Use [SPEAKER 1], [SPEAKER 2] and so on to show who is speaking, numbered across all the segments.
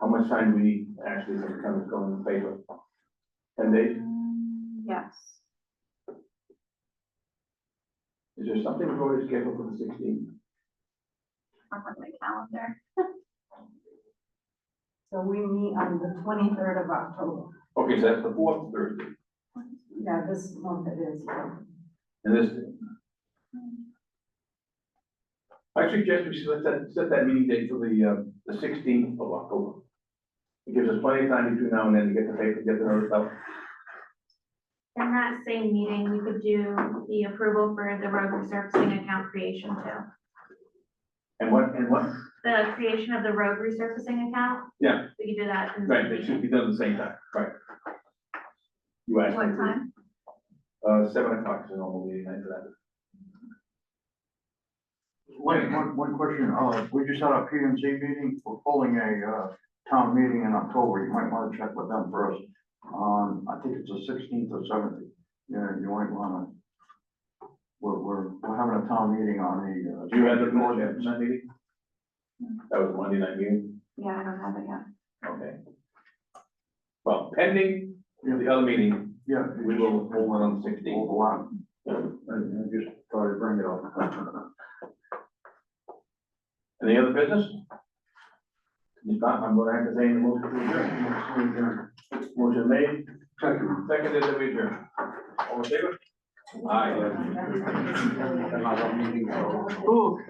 [SPEAKER 1] how much time do we need actually to become going in the paper? And they,
[SPEAKER 2] Mm, Yes,
[SPEAKER 1] is there something we've already scheduled for the sixteenth?
[SPEAKER 2] I'm on my calendar.
[SPEAKER 3] So we meet on the twenty-third of October.
[SPEAKER 1] Okay, so that's the fourth Thursday,
[SPEAKER 3] Yeah, this month it is.
[SPEAKER 1] and this, I suggest we set that, set that meeting date for the, uh, the sixteenth of October. It gives us plenty of time between now and then to get the paper, get the notice out.
[SPEAKER 2] In that same meeting, we could do the approval for the road resurfacing account creation too.
[SPEAKER 1] And what, and what,
[SPEAKER 2] The creation of the road resurfacing account.
[SPEAKER 1] Yeah.
[SPEAKER 2] We could do that in the
[SPEAKER 1] right,
[SPEAKER 2] same
[SPEAKER 1] they should
[SPEAKER 2] meeting.
[SPEAKER 1] be done at the same time, right? You asked. me
[SPEAKER 2] What
[SPEAKER 1] to-
[SPEAKER 2] time?
[SPEAKER 1] Uh, seven o'clock is a normal meeting night for that.
[SPEAKER 4] One, one, one question, uh, we just had a PMC meeting, we're pulling a, uh, town meeting in October, you might wanna check with them first. Um, I think it's the sixteenth or seventeenth, yeah, you might wanna. We're, we're, we're having a town meeting on the. uh,
[SPEAKER 1] Do you have the board at that meeting? That was Monday night meeting,
[SPEAKER 2] Yeah, I don't have it yet.
[SPEAKER 1] okay. Well, pending the other meeting,
[SPEAKER 4] Yeah.
[SPEAKER 1] we will hold one on the sixteenth.
[SPEAKER 4] Overlap. I, I just thought I'd bring it up.
[SPEAKER 1] Any other business? If not, I'm gonna have to say the motion to adjourn. Motion made,
[SPEAKER 4] Second.
[SPEAKER 1] seconded, and we adjourn. All in favor? Aye.
[SPEAKER 4] Another meeting.
[SPEAKER 1] Ooh,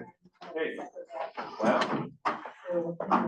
[SPEAKER 1] hey, well.
[SPEAKER 3] So, um,